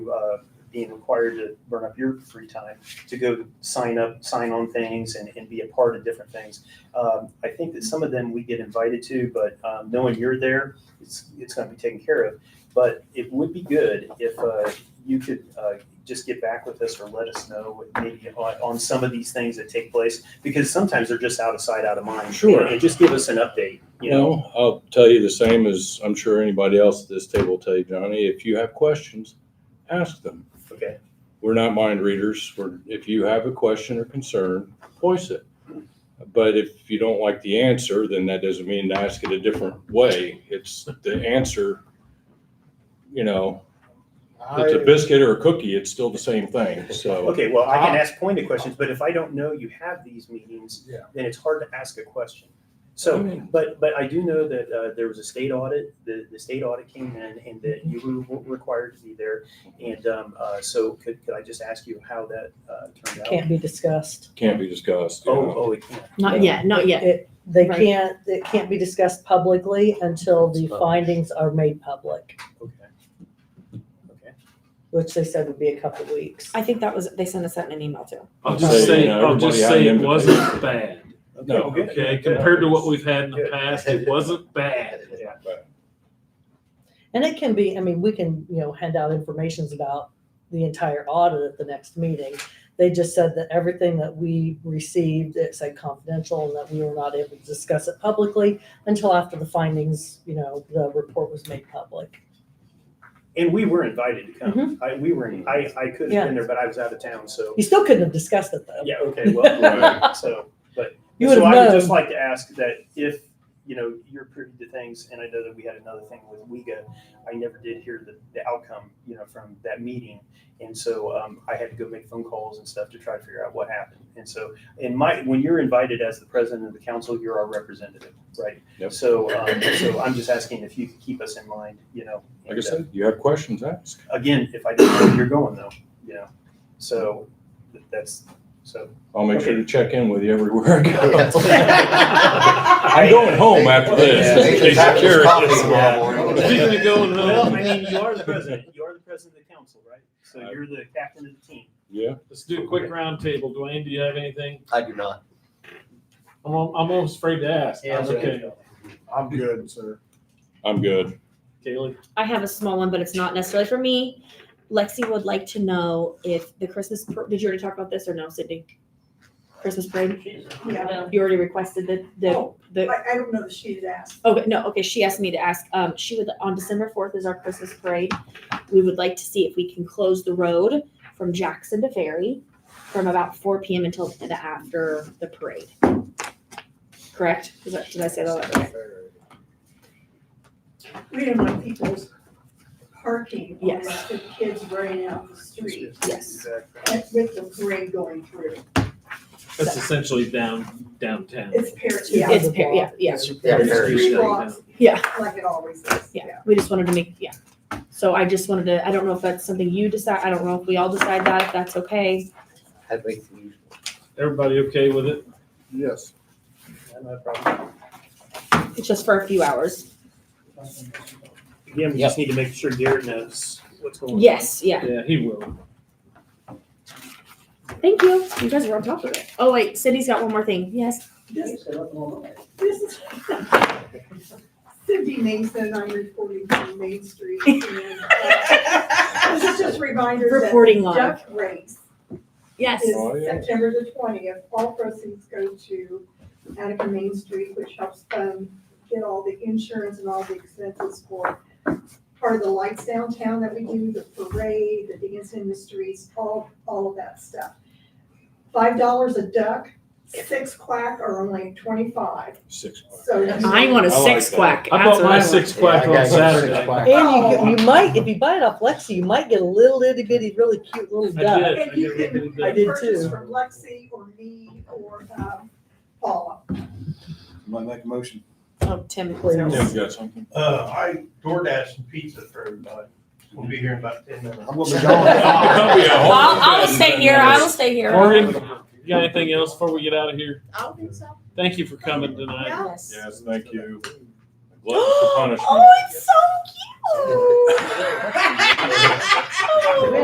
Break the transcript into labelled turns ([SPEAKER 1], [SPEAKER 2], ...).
[SPEAKER 1] uh, being required to burn up your free time to go sign up, sign on things and, and be a part of different things. Um, I think that some of them we get invited to, but um, knowing you're there, it's, it's going to be taken care of. But it would be good if uh, you could uh, just get back with us or let us know what maybe on, on some of these things that take place because sometimes they're just out of sight, out of mind.
[SPEAKER 2] Sure.
[SPEAKER 1] And just give us an update, you know.
[SPEAKER 2] Well, I'll tell you the same as I'm sure anybody else at this table will tell you, Johnny. If you have questions, ask them.
[SPEAKER 1] Okay.
[SPEAKER 2] We're not mind readers. We're, if you have a question or concern, voice it. But if you don't like the answer, then that doesn't mean to ask it a different way. It's the answer, you know, if it's a
[SPEAKER 3] I,
[SPEAKER 2] biscuit or a cookie, it's still the same thing. So,
[SPEAKER 1] Okay, well, I can ask pointed questions, but if I don't know you have these meetings,
[SPEAKER 3] Yeah.
[SPEAKER 1] then it's hard to ask a question. So, but, but I do know that uh, there was a state audit, the, the state audit came in and that you were required to be there. And um, uh, so could, could I just ask you how that uh, turned out?
[SPEAKER 4] can't be discussed.
[SPEAKER 2] can't be discussed. you
[SPEAKER 1] Oh,
[SPEAKER 2] know.
[SPEAKER 1] oh, it can't.
[SPEAKER 5] Not yet, not yet.
[SPEAKER 4] It- They
[SPEAKER 5] Right.
[SPEAKER 4] can't, it can't be discussed publicly until the findings are made public,
[SPEAKER 1] Okay.
[SPEAKER 4] which they said would be a couple weeks.
[SPEAKER 5] I think that was, they sent us that in an email too.
[SPEAKER 6] I'll
[SPEAKER 2] Say,
[SPEAKER 6] just
[SPEAKER 2] you
[SPEAKER 6] say,
[SPEAKER 2] know,
[SPEAKER 6] I'll just
[SPEAKER 2] everybody
[SPEAKER 6] say
[SPEAKER 2] had
[SPEAKER 6] it
[SPEAKER 2] an
[SPEAKER 6] wasn't bad,
[SPEAKER 2] No,
[SPEAKER 1] well, good.
[SPEAKER 6] okay?
[SPEAKER 1] Good.
[SPEAKER 6] Compared to what we've had in the
[SPEAKER 1] Good.
[SPEAKER 6] past, it wasn't bad.
[SPEAKER 1] Yeah.
[SPEAKER 4] And it can be, I mean, we can, you know, hand out informations about the entire audit at the next meeting. They just said that everything that we received, it said confidential and that we were not able to discuss it publicly until after the findings, you know, the report was made public.
[SPEAKER 1] And we were invited to come. I, we were, in- I, I could have been there, but I was out of town, so,
[SPEAKER 4] You still couldn't have discussed it though.
[SPEAKER 1] yeah, okay, well,
[SPEAKER 2] Right.
[SPEAKER 1] so.
[SPEAKER 4] You would
[SPEAKER 1] So I would
[SPEAKER 4] have
[SPEAKER 1] just
[SPEAKER 4] known.
[SPEAKER 1] like to ask that if, you know, you're privy to things, and I know that we had another thing with WEGA, I never did hear the, the outcome, you know, from that meeting. And so um, I had to go make phone calls and stuff to try to figure out what happened. And so, in my, when you're invited as the president of the council, you're our representative, right?
[SPEAKER 2] Yep.
[SPEAKER 1] So, um, so I'm just asking if you could keep us in mind, you know.
[SPEAKER 2] Like I
[SPEAKER 1] and, uh,
[SPEAKER 2] said, you have questions, ask.
[SPEAKER 1] Again, if I didn't know where you're going though, you know, so th- that's, so.
[SPEAKER 2] I'll make sure
[SPEAKER 1] Okay.
[SPEAKER 2] to check in with you everywhere I go. I'm
[SPEAKER 1] I
[SPEAKER 2] going home after
[SPEAKER 1] Yeah,
[SPEAKER 2] this.
[SPEAKER 1] they
[SPEAKER 2] Be
[SPEAKER 1] just have this
[SPEAKER 2] secure.
[SPEAKER 1] coffee tomorrow
[SPEAKER 6] Speaking of going
[SPEAKER 1] Well, I
[SPEAKER 6] home,
[SPEAKER 1] mean, you are the president, you are the president of the council, right? So
[SPEAKER 2] Uh,
[SPEAKER 1] you're the captain of the team.
[SPEAKER 2] Yeah,
[SPEAKER 6] let's do a quick roundtable. Dwayne, do you have anything?
[SPEAKER 7] I do not.
[SPEAKER 6] I'm, al- I'm almost afraid to ask.
[SPEAKER 1] Yeah,
[SPEAKER 6] That's okay.
[SPEAKER 3] I'm good, sir.
[SPEAKER 2] I'm good.
[SPEAKER 6] Kaylee,
[SPEAKER 5] I have a small one, but it's not necessarily for me. Lexi would like to know if the Christmas, par- did you already talk about this or no, Sydney? Christmas parade?
[SPEAKER 8] Yeah.
[SPEAKER 5] You already requested the, the,
[SPEAKER 8] Oh.
[SPEAKER 5] the,
[SPEAKER 8] I, I don't know that she's asked.
[SPEAKER 5] okay, no, okay, she asked me to ask, um, she would, on December fourth is our Christmas parade. We would like to see if we can close the road from Jackson to Ferry from about four P M until the after the parade. Correct? Is that, did I say that? Okay.
[SPEAKER 8] We don't want people's parking. on
[SPEAKER 5] Yes.
[SPEAKER 8] The kids running out the street
[SPEAKER 5] Yes.
[SPEAKER 8] and with the parade going through.
[SPEAKER 6] that's essentially down, downtown.
[SPEAKER 8] It's parents.
[SPEAKER 4] Yeah.
[SPEAKER 5] It's, par- yeah, yeah.
[SPEAKER 7] Yeah,
[SPEAKER 8] There's
[SPEAKER 7] very.
[SPEAKER 8] three
[SPEAKER 6] Very.
[SPEAKER 8] blocks.
[SPEAKER 5] Yeah.
[SPEAKER 8] Like it always is.
[SPEAKER 5] Yeah, we just wanted to make, yeah. So I just wanted to, I don't know if that's something you decide, I don't know if we all decide that, if that's okay.
[SPEAKER 7] I think the usual.
[SPEAKER 6] Everybody okay with it?
[SPEAKER 3] Yes.
[SPEAKER 5] It's just for a few hours.
[SPEAKER 1] Again, we just need to make sure Garrett knows what's going on.
[SPEAKER 5] Yes, yeah.
[SPEAKER 6] Yeah, he will.
[SPEAKER 5] Thank you. You guys were on top of it. Oh, wait, Cindy's got one more thing. Yes.
[SPEAKER 8] This, this is. Cindy Mason, I'm reporting from Main Street. and, uh, This is just a reminder that.
[SPEAKER 5] Reporting live.
[SPEAKER 8] Duck race
[SPEAKER 5] Yes.
[SPEAKER 8] is
[SPEAKER 2] Oh, yeah.
[SPEAKER 8] September the twentieth. All proceeds go to Attica Main Street, which helps um get all the insurance and all the expenses for part of the lights downtown that we do, the parade, the dance in the streets, all, all of that stuff. Five dollars a duck, six quack are only twenty-five,
[SPEAKER 2] Six. o'clock.
[SPEAKER 8] so.
[SPEAKER 5] I want a
[SPEAKER 2] I like
[SPEAKER 5] six
[SPEAKER 2] that.
[SPEAKER 5] quack.
[SPEAKER 6] I
[SPEAKER 5] That's
[SPEAKER 6] bought
[SPEAKER 5] what
[SPEAKER 6] my
[SPEAKER 5] want.
[SPEAKER 6] six quack
[SPEAKER 7] Yeah, I
[SPEAKER 6] on
[SPEAKER 7] got you six
[SPEAKER 6] Saturday.
[SPEAKER 7] o'clock.
[SPEAKER 4] And you, get- you might, if you buy it off Lexi, you might get a little itty bitty, really cute little
[SPEAKER 6] I
[SPEAKER 4] duck.
[SPEAKER 6] did.
[SPEAKER 8] And you can
[SPEAKER 4] I did
[SPEAKER 8] purchase
[SPEAKER 4] too.
[SPEAKER 8] from Lexi or me or, um, Paula.
[SPEAKER 3] Might make a motion.
[SPEAKER 5] Oh, Tim.
[SPEAKER 2] Tim, you got something?
[SPEAKER 9] Uh, I DoorDash some pizza for everybody. We'll be here in about ten minutes.
[SPEAKER 3] I'm gonna be
[SPEAKER 2] That'll be a
[SPEAKER 5] Well,
[SPEAKER 2] whole-
[SPEAKER 3] gone.
[SPEAKER 5] I will stay here. I will stay here.
[SPEAKER 6] Morgan, you got anything else before we get out of here?
[SPEAKER 8] I don't think so.
[SPEAKER 6] Thank you for coming tonight.
[SPEAKER 5] Yes.
[SPEAKER 2] Yes, thank you. Glutton for punishment.
[SPEAKER 5] Oh, it's so cute.